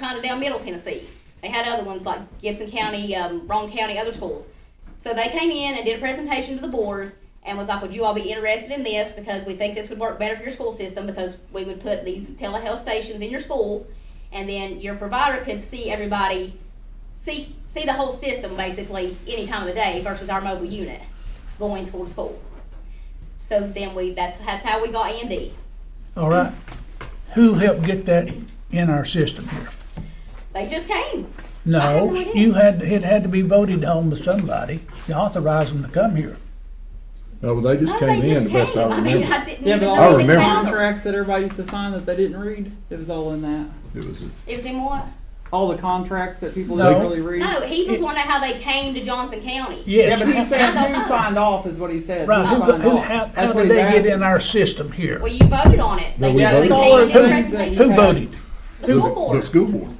down Middle Tennessee. They had other ones like Gibson County, um, Roane County, other schools. So they came in and did a presentation to the board and was like, would you all be interested in this? Because we think this would work better for your school system because we would put these telehealth stations in your school and then your provider could see everybody, see, see the whole system basically any time of the day versus our mobile unit going school to school. So then we, that's, that's how we got AMD. All right. Who helped get that in our system here? They just came. No, you had, it had to be voted on by somebody to authorize them to come here. No, but they just No, came they just in, the best came. I I mean, remember. I didn't Yeah, even but I know all this those remember. calendar. contracts that everybody used to sign that they didn't read, it was all in that. It was, It was in what? All the contracts that people No. didn't really read. No, he was wondering how they came to Johnson County. Yeah, but he Yes. said who signed off is what he said. Right, who, signed who, off. how, That's how what did they he's get in asking. our system here? Well, you voted on it. No, They we just- voted. we It's all came those to the things that you presentation. Who Yeah. voted? The the, school the board. school board.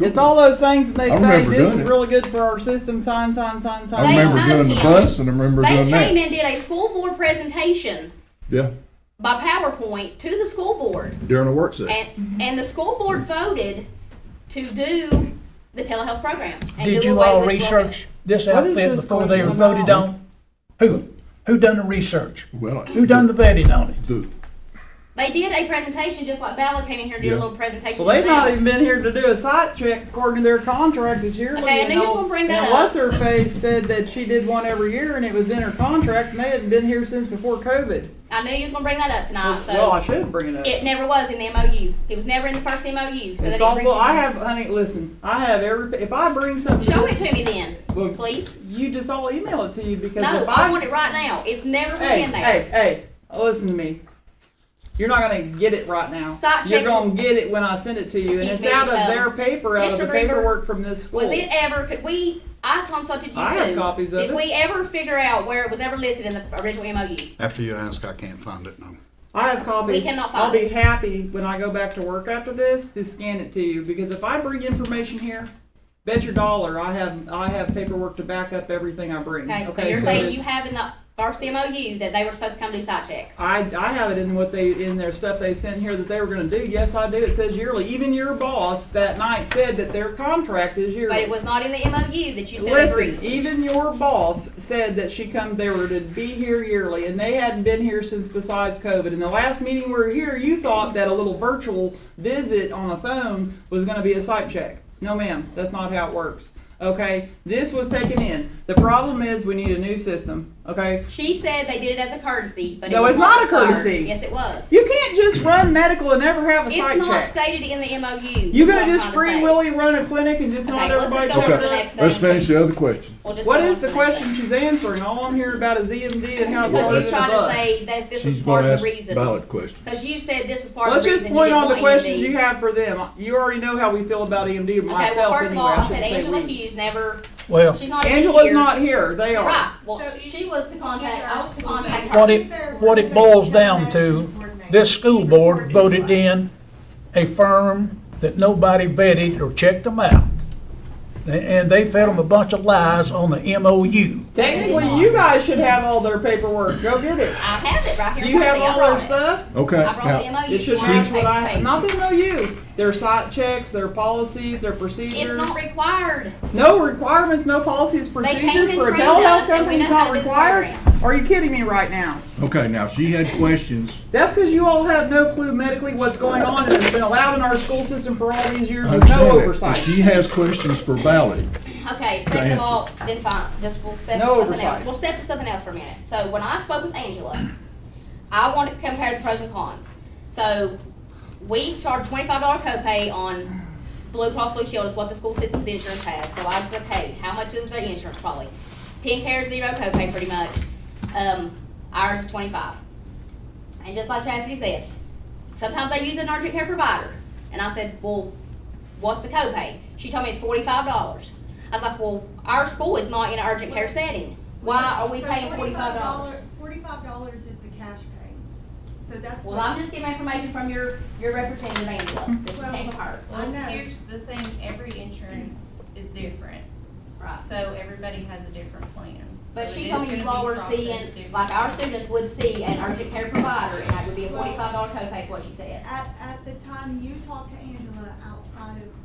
It's all those things that I they say, remember this doing is it. really good for our system, sign, sign, sign, I They sign. remember owned doing the him. bus and I remember They doing came that. and did a school board presentation Yeah, by PowerPoint to the school board. during a work session. And, and the school board voted to do the telehealth program. and Did do you away all with research this What is outfit this before they were question voted about? on? Who? Who done the research? Well, Who done the vetting on it? the, They did a presentation, just like Ballard came in here and did a Yeah. little presentation. Well, they've just not now. even been here to do a site check according to their contract is yearly. Okay, I knew you was all- gonna bring that and up. What's her face said that she did one every year and it was in her contract and they hadn't been here since before COVID. I knew you was gonna bring that up tonight, Well, I Ah, so should bring it up. it never was in the MOU. It was never in the first MOU, so they It's didn't bring all, it. I have, honey, listen, I have every, if I bring something. Show it to me then, Well, please. You just all email it to you because No, if I want it right now. It's never was Hey, in there. hey, hey, listen to me. You're not gonna get it right now. Site You're check- gonna get it when I send it to you and Excuse it's me, out of um, their paper, out of Mr. the Greenberg, paperwork from this school. Was it ever, could we, I consulted you too. I have copies of Did it. we ever figure out where it was ever listed in the original MOU? After you ask, I can't find it, no. I have copies. We cannot find I'll be happy when I go back to work after this to scan it to you because if I bring information here, bet your dollar I have I have paperwork to back up everything I bring. Okay, so you're saying that- you have in the first MOU that they were supposed to come do site checks? I, I have it in what they, in their stuff they sent here that they were gonna do, yes, I do, it says yearly, even your boss that night said that their contract is yearly. But it was not in the MOU that you said they Listen, e- breached. even your boss said that she come, they were to be here yearly, and they hadn't been here since besides COVID, and the last meeting we were here, you thought that a little virtual visit on a phone was gonna be a site check. No ma'am, that's not how it works, okay? This was taken in, the problem is we need a new system, okay? She said they did it as a courtesy, but it No, was it's not a required. courtesy. Yes, it was. You can't just run medical and never have a It's site not check. stated in the MOU. You is what gonna I'm trying to just free say. willy run a clinic and just not Okay, let's everybody just go on check to it the up? next thing. let's finish the other question. We'll just What go on is to the next question she's answering? All I'm hearing about is EMD and how thing. So it's all you're over the trying to bus. say that this was She's part gonna of the ask reason? valid question. Because you said this was part of Let's the just reason. E you point didn't on the want questions EMD. you have for them. You already know how we feel about E EMD Okay, well, myself first of anyway. all, I said I shouldn't Angela say we. Hughes never, Well, she's not even here. Angela's not here, they Right, are. well, she was the contact, I was the contact. what it, what it boils down to, this school board voted in a firm that nobody vetted or checked them out. And they fed them a bunch of lies on the MOU. Technically, you guys should have all their paperwork, go get it. I have it right here. Do in you front of have me. I all their brought it. stuff? Okay, I brought the now, MOU. It should for our match what I paper. have. Not the MOU. Their site checks, their policies, their procedures. It's not required. no requirements, no policies, came procedures and for a trained telehealth us and we company is know how not to do the required. Are you kidding me right now? okay, now she had questions. That's because you all have no clue medically what's going on and it's been allowed in our school system for all these years with Understand no that. oversight. She has questions for valid. Okay, I second of answer? all, then fine, just we'll step to No something oversight. else. We'll step to something else for a minute. So when I spoke with Angela, I wanted to compare the pros and cons. So we charge twenty-five dollar copay on Blue Cross Blue Shield is what the school system's insurance has. So I was like, hey, how much is their insurance probably? Ten care, zero copay pretty much. Um, ours is twenty-five. And just like Chastity said, sometimes I use an urgent care provider. And I said, well, what's the copay? She told me it's forty-five dollars. I was like, well, our school is not in an urgent care setting. Why are we So paying forty-five dollars? Forty-five dollars is the cash pay, so that's. Well, what- I'm just getting information from your, your representative, Angela. This came from her. I Well, know. here's the thing, every insurance is different, Right. so everybody has a different plan. But So it she is told me you gonna all be were processed seeing, different. like our students would see an urgent care provider and that would be a forty-five dollar copay is what she said. At, at the time you talked to Angela outside of